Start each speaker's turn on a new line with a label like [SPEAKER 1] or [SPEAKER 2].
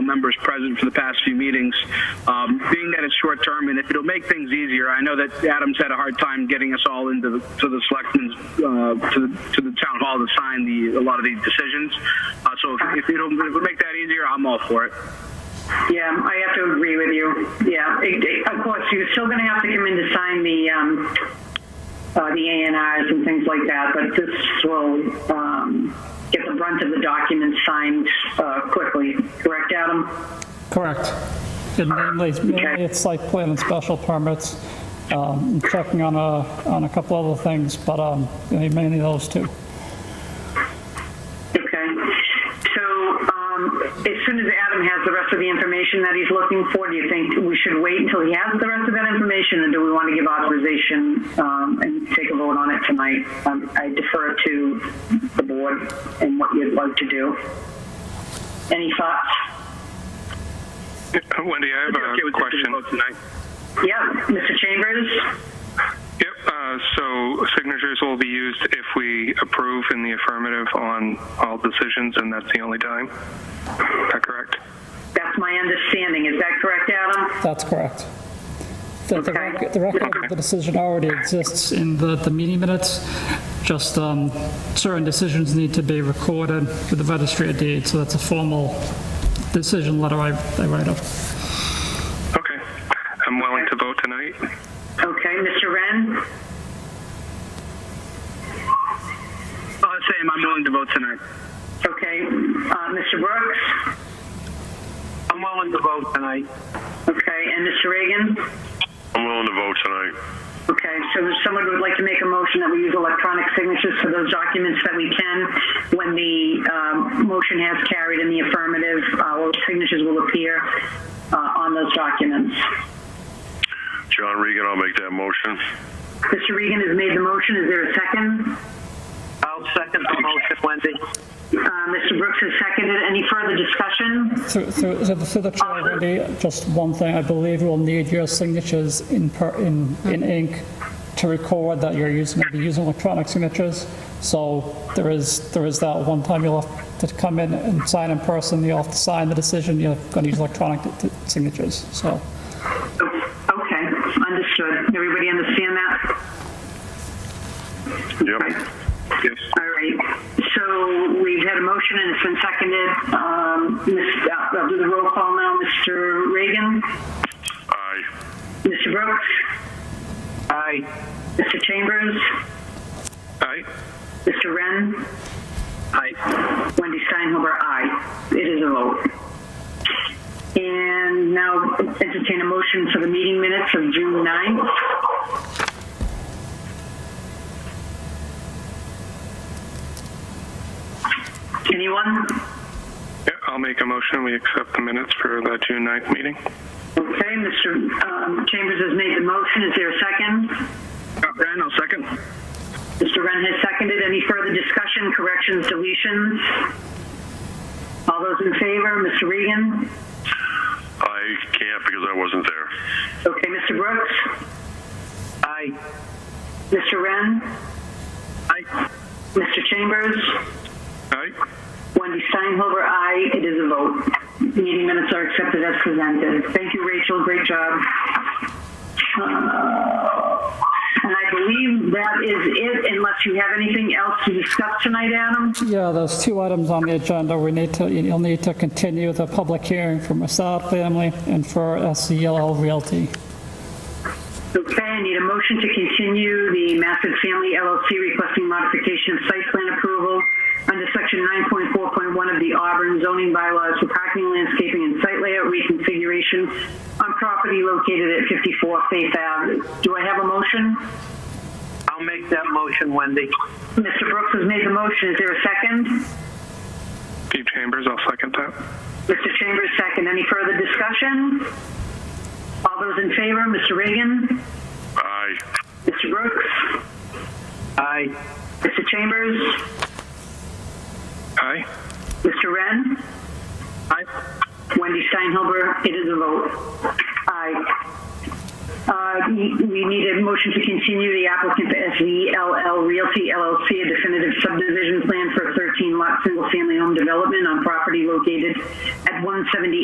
[SPEAKER 1] members present for the past few meetings. Um, being that it's short term, and if it'll make things easier, I know that Adams had a hard time getting us all into the, to the selectmen's uh, to, the, to the town hall to sign the a lot of these decisions. Uh, so if, if it'll if it'll make that easier, I'm all for it.
[SPEAKER 2] Yeah, I have to agree with you. Yeah, it- it- of course, you're still going to have to come in to sign the, um, uh, the A and Rs and things like that, but this will, um, get the brunt of the documents signed, uh, quickly. Correct, Adam?
[SPEAKER 3] Correct. It mainly, mainly it's like plan and special permits, um, checking on a, on a couple other things, but um, mainly those two.
[SPEAKER 2] Okay. So, um, as soon as Adam has the rest of the information that he's looking for, do you think we should wait until he has the rest of that information, and do we want to give authorization, um, and take a vote on it tonight? Um, I defer to the board and what you'd like to do. Any thoughts?
[SPEAKER 4] Wendy, I have
[SPEAKER 1] If you're okay
[SPEAKER 4] a
[SPEAKER 1] with taking
[SPEAKER 4] question.
[SPEAKER 1] the vote tonight.
[SPEAKER 2] Yeah, Mr. Chambers?
[SPEAKER 4] Yep, uh, so signatures will be used if we approve in the affirmative on all decisions, and that's the only time? Is that correct?
[SPEAKER 2] That's my understanding. Is that correct, Adam?
[SPEAKER 3] That's correct. The, the
[SPEAKER 2] Okay.
[SPEAKER 3] rec- the record of the decision already exists in the, the meeting minutes, just um, certain decisions need to be recorded with the registry of deeds, so that's a formal decision letter I, I write up.
[SPEAKER 4] Okay. I'm willing to vote tonight.
[SPEAKER 2] Okay, Mr. Wren?
[SPEAKER 1] Uh, same, I'm willing to vote tonight.
[SPEAKER 2] Okay, uh, Mr. Brooks?
[SPEAKER 1] I'm willing to vote tonight.
[SPEAKER 2] Okay, and Mr. Reagan?
[SPEAKER 5] I'm willing to vote tonight.
[SPEAKER 2] Okay, so if someone would like to make a motion that we use electronic signatures for those documents that we can, when the um, motion has carried in the affirmative, our signatures will appear uh, on those documents.
[SPEAKER 5] John Regan, I'll make that motion.
[SPEAKER 2] Mr. Regan has made the motion, is there a second?
[SPEAKER 6] I'll second the motion, Wendy.
[SPEAKER 2] Uh, Mr. Brooks has seconded, any further discussion?
[SPEAKER 3] Through, through, so the- through the chair, Wendy, just one thing, I believe we'll need your signatures in, per- in, in ink to record that you're using, gonna be using electronic signatures. So there is, there is that one time you'll have to come in and sign in person, you'll have to sign the decision, you're gonna use electronic t- t- signatures, so.
[SPEAKER 2] Okay, understood, everybody understand that?
[SPEAKER 5] Yep.
[SPEAKER 4] Yes.
[SPEAKER 2] All right, so we've had a motion and it's been seconded. Um, Ms. uh, I'll do the roll call now, Mr. Reagan?
[SPEAKER 5] Aye.
[SPEAKER 2] Mr. Brooks?
[SPEAKER 1] Aye.
[SPEAKER 2] Mr. Chambers?
[SPEAKER 4] Aye?
[SPEAKER 2] Mr. Wren?
[SPEAKER 1] Aye.
[SPEAKER 2] Wendy Steinhuber, aye. It is a vote. And now entertain a motion for the meeting minutes of June 9th. Anyone?
[SPEAKER 4] Yeah, I'll make a motion. We accept the minutes for the June 9th meeting.
[SPEAKER 2] Okay, Mr. um, Chambers has made the motion. Is there a second?
[SPEAKER 1] Uh, Ren, I'll second.
[SPEAKER 2] Mr. Wren has seconded. Any further discussion, corrections, deletions? All those in favor, Mr. Regan?
[SPEAKER 5] I can't because I wasn't there.
[SPEAKER 2] Okay, Mr. Brooks?
[SPEAKER 1] Aye.
[SPEAKER 2] Mr. Wren?
[SPEAKER 1] Aye.
[SPEAKER 2] Mr. Chambers?
[SPEAKER 4] Aye?
[SPEAKER 2] Wendy Steinhover, aye. It is a vote. Meeting minutes are accepted as presented. Thank you, Rachel. Great job. Uh, And I believe that is it, unless you have anything else to discuss tonight, Adam?
[SPEAKER 3] Yeah, there's two items on the agenda. We need to, you'll need to continue the public hearing for Masad family and for SEL Realty.
[SPEAKER 2] Okay, I need a motion to continue the Massett Family LLC requesting modification of site plan approval under section 9.4.1 of the Auburn zoning bylaws for parking, landscaping, and site layout reconfiguration on property located at 54 Faith Ave. Do I have a motion?
[SPEAKER 6] I'll make that motion, Wendy.
[SPEAKER 2] Mr. Brooks has made the motion. Is there a second?
[SPEAKER 4] Steve Chambers, I'll second that.
[SPEAKER 2] Mr. Chambers, second. Any further discussion? All those in favor, Mr. Reagan?
[SPEAKER 5] Aye.
[SPEAKER 2] Mr. Brooks?
[SPEAKER 6] Aye.
[SPEAKER 2] Mr. Chambers?
[SPEAKER 4] Aye?
[SPEAKER 2] Mr. Wren?
[SPEAKER 1] Aye.
[SPEAKER 2] Wendy Steinhuber, it is a vote. Aye. Uh, we we need a motion to continue the applicant to SVLL Realty LLC, a definitive subdivision plan for a 13-lot single-family home development on property located at 178